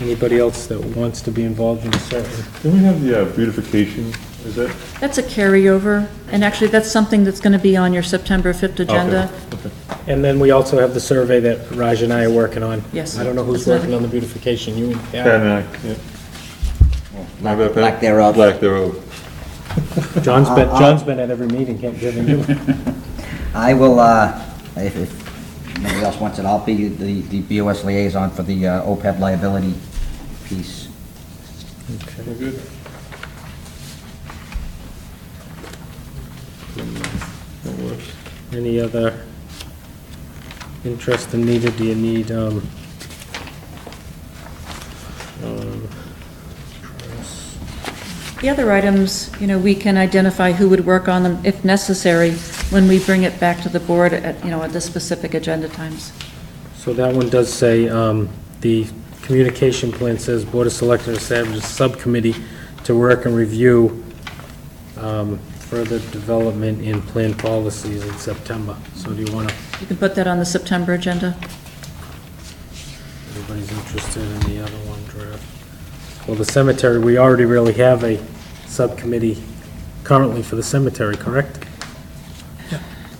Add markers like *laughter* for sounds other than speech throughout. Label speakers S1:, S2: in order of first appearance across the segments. S1: anybody else that wants to be involved in the survey.
S2: Can we have the uh, beautification, is that?
S3: That's a carryover, and actually, that's something that's going to be on your September 5th agenda.
S1: And then we also have the survey that Raj and I are working on.
S3: Yes.
S1: I don't know who's
S3: That's another-
S1: working on the beautification, you and Pat?
S2: Pat and I, yeah.
S4: Lack-
S2: Remember that, Pat?
S4: lack thereof.
S2: Lack thereof.
S1: John's been, John's been at every meeting, can't give him you.
S4: I will, uh, if, if nobody else wants it, I'll be the, the BOS liaison for the uh, OPEB liability piece.
S2: We're good. That works.
S1: Any other interest in needed, do you need, um, um,
S3: The other items, you know, we can identify who would work on them if necessary when we bring it back to the board at, you know, at the specific agenda times.
S1: So that one does say, um, the communication plan says Board of Selectmen establishes a subcommittee to work and review, um, further development in plan policies in September. So do you wanna,
S3: You can put that on the September agenda.
S1: everybody's interested in the other one draft? Well, the cemetery, we already really have a subcommittee currently for the cemetery, correct?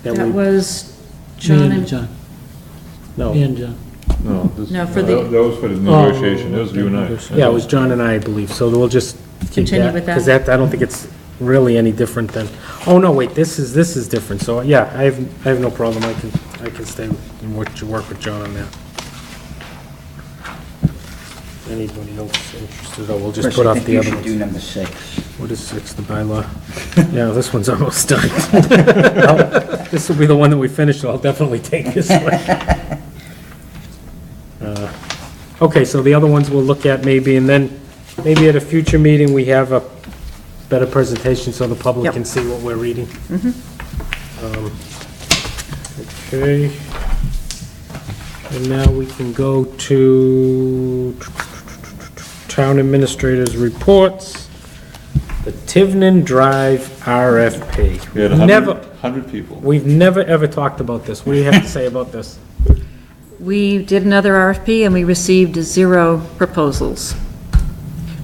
S1: That
S3: That
S1: we-
S3: was
S5: Me
S3: John
S5: and
S3: and,
S5: John,
S1: No.
S5: me and John.
S2: No, this.
S3: No, for the-
S2: that- That was for the negotiation, that was you and I.
S1: Oh. Yeah, it was John and I, I believe, so we'll just keep
S3: Continue
S1: that,
S3: with that.
S1: because that, I don't think it's really any different than, oh, no, wait, this is, this is different, so, yeah, I have, I have no problem, I can, I can stay and work, to work with John on that. Anybody else interested, or we'll just
S4: Chris,
S1: put
S4: I
S1: off
S4: think
S1: the
S4: you
S1: other
S4: should do
S1: ones?
S4: number six.
S1: What is six, the bylaw? *laughs* Yeah, this one's almost done. No, This will be the one that we finish, so I'll definitely take this one. Uh, Okay, so the other ones we'll look at maybe, and then maybe at a future meeting, we have a better presentation so the public
S3: Yep.
S1: can see what we're reading. Um, Okay. And now we can go to town administrators' reports, the Tivnan Drive RFP.
S2: We had
S1: Never,
S2: 100 100 people.
S1: we've never, ever talked about this. What do you have to say about this?
S3: we did another RFP and we received zero proposals.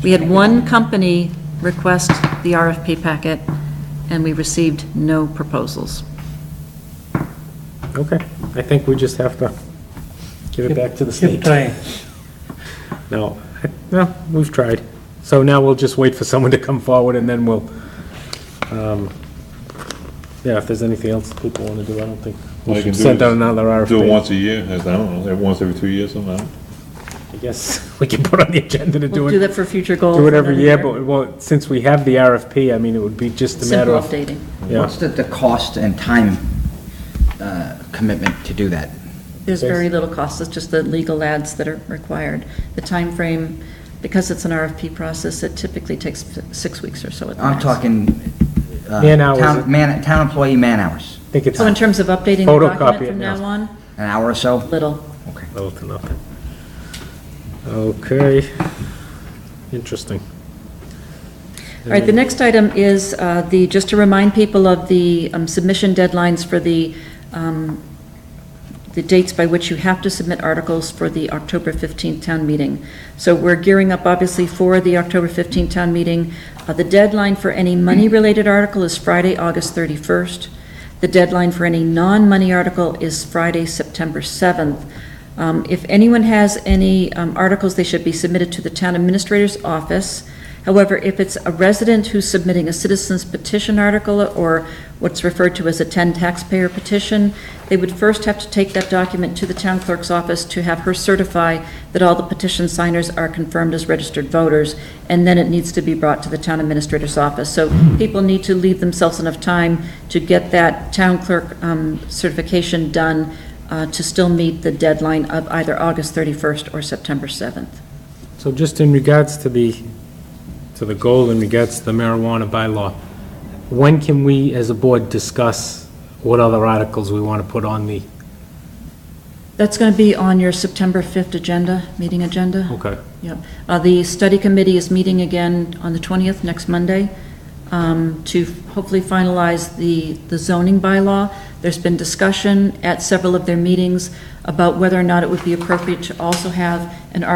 S3: We had one company request the RFP packet and we received no proposals.
S1: *laughs* Okay, I think we just have to give it back to the state.
S5: Keep trying.
S1: No, no, we've tried. So now we'll just wait for someone to come forward and then we'll, um, yeah, if there's anything else people want to do, I don't think.
S2: All
S1: We
S2: you can
S1: should
S2: do
S1: send out
S2: is
S1: another RFP.
S2: Do it once a year, I don't know, once every two years, somehow.
S1: I guess *laughs* we can put on the agenda to do
S3: We'll do
S1: it,
S3: that for future goals.
S1: do it every
S3: another
S1: year, but, well, since we have the RFP, I mean, it would be just a matter
S3: Simple
S1: of.
S3: updating.
S1: Yeah,
S4: What's the, the cost and time uh, commitment to do that?
S3: There's
S1: Yes.
S3: very little cost, it's just the legal ads that are required. The time frame, because it's an RFP process, it typically takes six weeks or so at the
S4: I'm
S3: max.
S4: talking. uh,
S1: Man hours.
S4: town- Man, town employee man hours,
S1: I think it's
S3: So in terms of updating the
S1: Photocopy
S3: document
S1: it
S3: from
S1: now.
S3: now on,
S4: an hour or so?
S3: little.
S4: Okay.
S1: little to nothing. Okay, interesting.
S3: All right, the next item is uh, the, just to remind people of the um, submission deadlines for the, um, the dates by which you have to submit articles for the October 15th town meeting. So we're gearing up, obviously, for the October 15th town meeting. Uh, The deadline for any money-related article is Friday, August 31st. The deadline for any non-money article is Friday, September 7th. Um, If anyone has any um, articles, they should be submitted to the town administrator's office. However, if it's a resident who's submitting a citizen's petition article or what's referred to as a 10 taxpayer petition, they would first have to take that document to the town clerk's office to have her certify that all the petition signers are confirmed as registered voters, and then it needs to be brought to the town administrator's office. So people need to leave themselves enough time to get that town clerk um, certification done uh, to still meet the deadline of either August 31st or September 7th.
S1: So just in regards to the, to the goal in regards to the marijuana bylaw, when can we, as a board, discuss what other articles we want to put on the,
S3: That's going to be on your September 5th agenda, meeting agenda.
S1: okay,
S3: Yep. Uh, The study committee is meeting again on the 20th, next Monday, um, to hopefully finalize the the zoning bylaw. There's been discussion at several of their meetings about whether or not it would be appropriate to also have an article